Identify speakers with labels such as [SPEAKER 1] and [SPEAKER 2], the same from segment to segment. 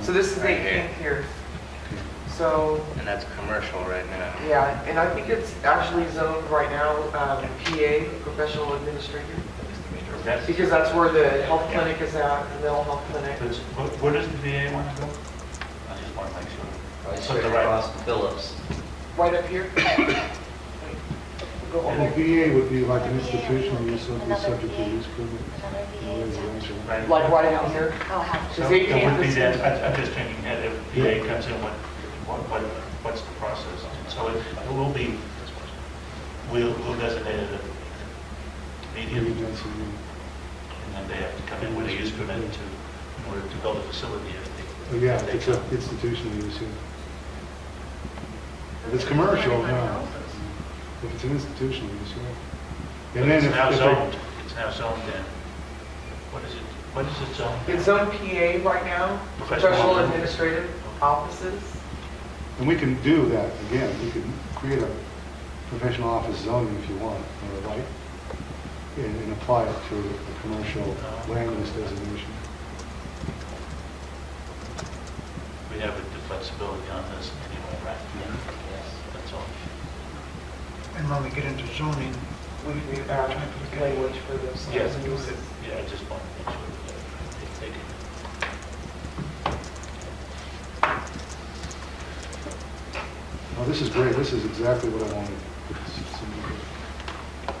[SPEAKER 1] So this is
[SPEAKER 2] Right
[SPEAKER 1] 18th here. So,
[SPEAKER 2] And that's commercial right now.
[SPEAKER 1] yeah, and I think it's actually zoned right now, um, PA, professional administrator,
[SPEAKER 3] That's,
[SPEAKER 1] because that's where the health clinic is at, the mental health clinic.
[SPEAKER 3] that's- what, where does the VA want to go? I just want to make sure.
[SPEAKER 4] Right
[SPEAKER 3] So the
[SPEAKER 4] straight
[SPEAKER 3] right-
[SPEAKER 4] across from Phillips.
[SPEAKER 1] Right up here? Go all
[SPEAKER 5] Well,
[SPEAKER 1] the way.
[SPEAKER 5] VA would be like an institutional use, would be subject to use permit. or residential.
[SPEAKER 3] right?
[SPEAKER 1] Like right out here?
[SPEAKER 6] Oh, how?
[SPEAKER 3] So
[SPEAKER 1] Is
[SPEAKER 3] it
[SPEAKER 1] 18th
[SPEAKER 3] would be
[SPEAKER 1] is-
[SPEAKER 3] that, I- I'm just thinking that if VA comes in, what, what, what- what's the process? So it it will be, we'll, we'll designate it a medium,
[SPEAKER 5] Maybe
[SPEAKER 3] and
[SPEAKER 5] that's a-
[SPEAKER 3] then they have to come in with a use permit to, in order to build a facility if
[SPEAKER 5] oh,
[SPEAKER 3] they.
[SPEAKER 5] Yeah,
[SPEAKER 3] if they
[SPEAKER 5] it's a
[SPEAKER 3] come.
[SPEAKER 5] institutional use, yeah. If it's commercial, no. If it's an institutional use, yeah. And then
[SPEAKER 3] It's
[SPEAKER 5] if-
[SPEAKER 3] now
[SPEAKER 5] if,
[SPEAKER 3] zoned,
[SPEAKER 5] they-
[SPEAKER 3] it's now zoned in, what is it, what is it zoned?
[SPEAKER 1] It's zone PA right now,
[SPEAKER 3] Professional.
[SPEAKER 1] professional administrative offices.
[SPEAKER 5] and we can do that, again, we can create a professional office zoning if you want, or like, and, and apply it to a commercial land use designation.
[SPEAKER 3] We have the flexibility on this anyway, right?
[SPEAKER 7] Mm-hmm.
[SPEAKER 4] Yes.
[SPEAKER 3] That's all.
[SPEAKER 8] And when we get into zoning, uh,
[SPEAKER 1] We do have language for those.
[SPEAKER 3] Yes.
[SPEAKER 1] uses.
[SPEAKER 3] Yeah, I just want to make sure that they take it.
[SPEAKER 5] Oh, this is great, this is exactly what I wanted. It's- it's- so-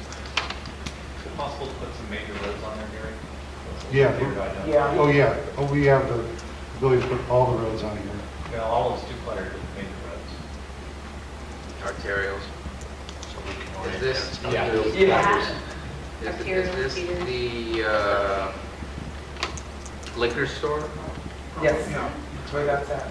[SPEAKER 7] Is it possible to put some major roads on there, Gary?
[SPEAKER 5] Yeah.
[SPEAKER 7] Figured I'd done.
[SPEAKER 1] Yeah.
[SPEAKER 5] Oh, yeah, oh, we have the ability to put all the roads on here.
[SPEAKER 7] Well, all of it's too cluttered with major roads.
[SPEAKER 2] Arterials.
[SPEAKER 3] So we can
[SPEAKER 2] Is
[SPEAKER 3] orient
[SPEAKER 2] this, is
[SPEAKER 3] it.
[SPEAKER 6] Yeah.
[SPEAKER 2] is this the uh, liquor store?
[SPEAKER 1] Yes,
[SPEAKER 8] Yeah.
[SPEAKER 1] that's where that's at.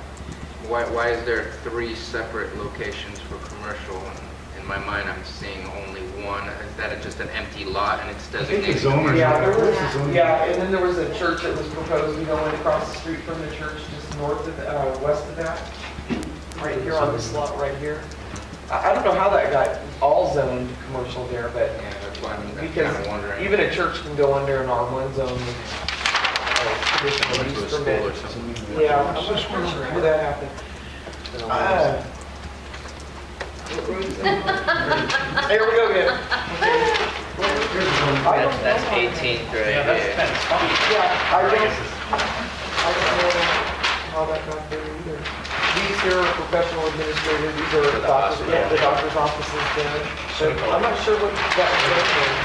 [SPEAKER 2] Why, why is there three separate locations for commercial? And In my mind, I'm seeing only one. Is that just an empty lot and it's
[SPEAKER 5] I think the
[SPEAKER 2] designated?
[SPEAKER 5] zoners,
[SPEAKER 1] Yeah, there
[SPEAKER 5] where's
[SPEAKER 1] was,
[SPEAKER 5] the zoning?
[SPEAKER 1] yeah, and then there was a church that was proposed, you know, went across the street from the church, just north of, uh, west of that, right here on this lot right here. I, I don't know how that got all zoned commercial there, but,
[SPEAKER 2] Yeah, that's why I'm kind of
[SPEAKER 1] because
[SPEAKER 2] wondering.
[SPEAKER 1] even a church can go under an R1 zone with, uh,
[SPEAKER 2] Go
[SPEAKER 1] conditional
[SPEAKER 2] into a
[SPEAKER 1] use
[SPEAKER 2] school or
[SPEAKER 1] permit.
[SPEAKER 2] something.
[SPEAKER 1] Yeah, I'm not sure how that happened. Uh, Here we go again. I don't
[SPEAKER 2] That's that's
[SPEAKER 1] know.
[SPEAKER 2] 18th right
[SPEAKER 3] Yeah, that's,
[SPEAKER 2] here.
[SPEAKER 3] that's fine.
[SPEAKER 1] Yeah, I
[SPEAKER 3] I
[SPEAKER 1] don't,
[SPEAKER 3] guess it's-
[SPEAKER 1] I don't know how that got there either. These here are professional administrators, these are
[SPEAKER 2] the
[SPEAKER 1] doctors,
[SPEAKER 2] hospital.
[SPEAKER 1] yeah, the doctor's offices down. So I'm not sure what that was.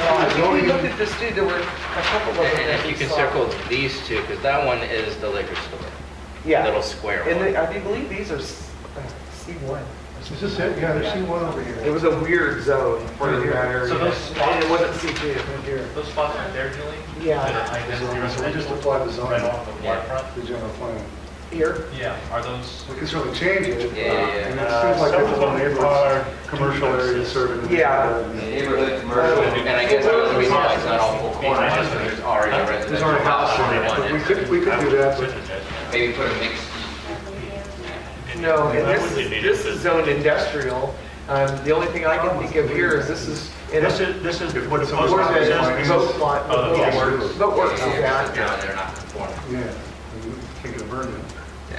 [SPEAKER 1] Uh, I think we looked at this too, there were a couple of them.
[SPEAKER 2] And
[SPEAKER 1] that
[SPEAKER 2] if
[SPEAKER 1] we
[SPEAKER 2] you can
[SPEAKER 1] saw.
[SPEAKER 2] circle these two, because that one is the liquor store, the little
[SPEAKER 1] Yeah,
[SPEAKER 2] square
[SPEAKER 1] and they-
[SPEAKER 2] one.
[SPEAKER 1] I do believe these are s- uh, C1.
[SPEAKER 5] Is this it? Yeah, there's C1 over
[SPEAKER 1] It
[SPEAKER 5] here.
[SPEAKER 1] was a weird zone for that area.
[SPEAKER 7] So those
[SPEAKER 1] And it
[SPEAKER 7] spots-
[SPEAKER 1] wasn't C2, right here.
[SPEAKER 7] Those spots right there, Julie?
[SPEAKER 1] Yeah.
[SPEAKER 7] That are high density
[SPEAKER 5] So- so we just
[SPEAKER 7] residential,
[SPEAKER 5] apply the zoning.
[SPEAKER 7] Right off the
[SPEAKER 2] Yeah.
[SPEAKER 7] waterfront?
[SPEAKER 5] The general plan.
[SPEAKER 1] Here,
[SPEAKER 7] Yeah, are those,
[SPEAKER 5] We can certainly change it.
[SPEAKER 2] Yeah, yeah, yeah.
[SPEAKER 5] And it seems like
[SPEAKER 3] Uh, some
[SPEAKER 5] there's a
[SPEAKER 3] of
[SPEAKER 5] lot
[SPEAKER 3] them
[SPEAKER 5] of
[SPEAKER 3] are-
[SPEAKER 5] neighborhoods, commercial areas serving.
[SPEAKER 1] Yeah.
[SPEAKER 4] Neighborhood
[SPEAKER 1] commercial.
[SPEAKER 2] And I guess that was the reason why it's not all full corner,
[SPEAKER 3] Yeah.
[SPEAKER 2] just because there's already a residential.
[SPEAKER 5] There's already a house
[SPEAKER 2] lot
[SPEAKER 5] in there,
[SPEAKER 2] on
[SPEAKER 5] but
[SPEAKER 2] it.
[SPEAKER 5] we could, we could
[SPEAKER 3] I
[SPEAKER 5] do
[SPEAKER 3] would
[SPEAKER 5] that, but
[SPEAKER 3] consider that,
[SPEAKER 2] Maybe put a mixed,
[SPEAKER 3] yeah.
[SPEAKER 1] No, and
[SPEAKER 3] Why
[SPEAKER 1] this
[SPEAKER 3] would they
[SPEAKER 1] is,
[SPEAKER 3] need
[SPEAKER 1] this
[SPEAKER 3] it?
[SPEAKER 1] is zoned industrial. Um, The only thing I can think of here is this is. in a-
[SPEAKER 3] This is, this is what it
[SPEAKER 5] So
[SPEAKER 3] was.
[SPEAKER 5] we're gonna-
[SPEAKER 3] This is-
[SPEAKER 1] Boat lot,
[SPEAKER 3] Oh,
[SPEAKER 1] boat
[SPEAKER 3] yeah.
[SPEAKER 1] works, boat works,
[SPEAKER 2] yeah,
[SPEAKER 1] yeah.
[SPEAKER 2] they're not conforming.
[SPEAKER 5] yeah, we think of Vernon.
[SPEAKER 2] Yeah.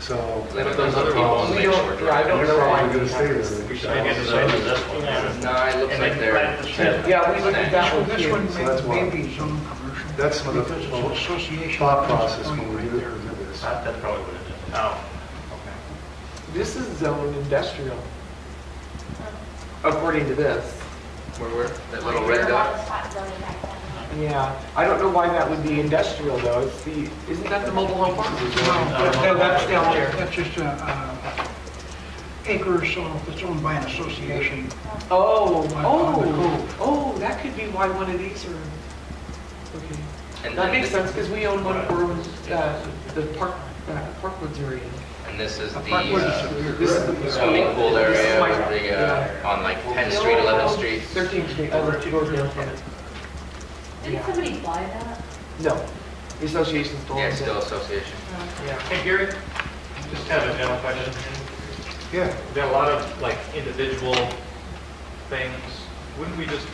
[SPEAKER 5] So.
[SPEAKER 2] They don't- those other people on
[SPEAKER 1] We
[SPEAKER 2] Lakeshore
[SPEAKER 1] don't, yeah, I
[SPEAKER 2] Drive.
[SPEAKER 1] don't
[SPEAKER 5] They're
[SPEAKER 1] know why.
[SPEAKER 5] probably gonna stay there.
[SPEAKER 3] We should make it the same as this one. yeah.
[SPEAKER 2] No, it looks
[SPEAKER 3] And
[SPEAKER 2] like
[SPEAKER 3] then
[SPEAKER 2] they're,
[SPEAKER 3] plant the shed.
[SPEAKER 1] Yeah, we looked at that one
[SPEAKER 8] This one
[SPEAKER 1] too.
[SPEAKER 5] So that's why.
[SPEAKER 8] may be zone commercial.
[SPEAKER 5] That's some of the
[SPEAKER 8] because it's association
[SPEAKER 5] thought process
[SPEAKER 8] going
[SPEAKER 5] when we
[SPEAKER 8] right
[SPEAKER 5] do
[SPEAKER 8] there.
[SPEAKER 5] do this.
[SPEAKER 3] That- That's probably what it is. Oh,
[SPEAKER 1] This is zoned industrial. According to this.
[SPEAKER 2] where, where, that little red dot?
[SPEAKER 1] Yeah, I don't know why that would be industrial though. It's the, isn't that the mobile home park?
[SPEAKER 3] No.
[SPEAKER 1] No, that's down there.
[SPEAKER 8] That's just a, uh, acre or so that's owned by an association.
[SPEAKER 1] Oh,
[SPEAKER 8] On- on the
[SPEAKER 1] oh,
[SPEAKER 8] cove.
[SPEAKER 1] oh, that could be why one of these are, okay.
[SPEAKER 2] And
[SPEAKER 1] That
[SPEAKER 2] then
[SPEAKER 1] makes
[SPEAKER 2] this-
[SPEAKER 1] sense, because we own one for uh, the park, uh, Parkwoods area.
[SPEAKER 2] And this is the
[SPEAKER 8] Parkway is
[SPEAKER 2] uh,
[SPEAKER 8] severe.
[SPEAKER 1] This is the-
[SPEAKER 2] swimming pool
[SPEAKER 1] This is
[SPEAKER 2] area,
[SPEAKER 1] my-
[SPEAKER 2] over the,
[SPEAKER 1] yeah.
[SPEAKER 2] uh, on like 10th Street, 11th Street.
[SPEAKER 1] 13th Oh, Street, oh, over to Gordon Hill.
[SPEAKER 6] Didn't somebody buy that?
[SPEAKER 1] No, the association still
[SPEAKER 2] Yeah,
[SPEAKER 1] owns
[SPEAKER 2] still
[SPEAKER 1] it.
[SPEAKER 2] association.
[SPEAKER 1] Yeah.
[SPEAKER 7] hey, Gary, just kind of a general question.
[SPEAKER 5] Yeah.
[SPEAKER 7] We've got a lot of like individual things. Wouldn't we just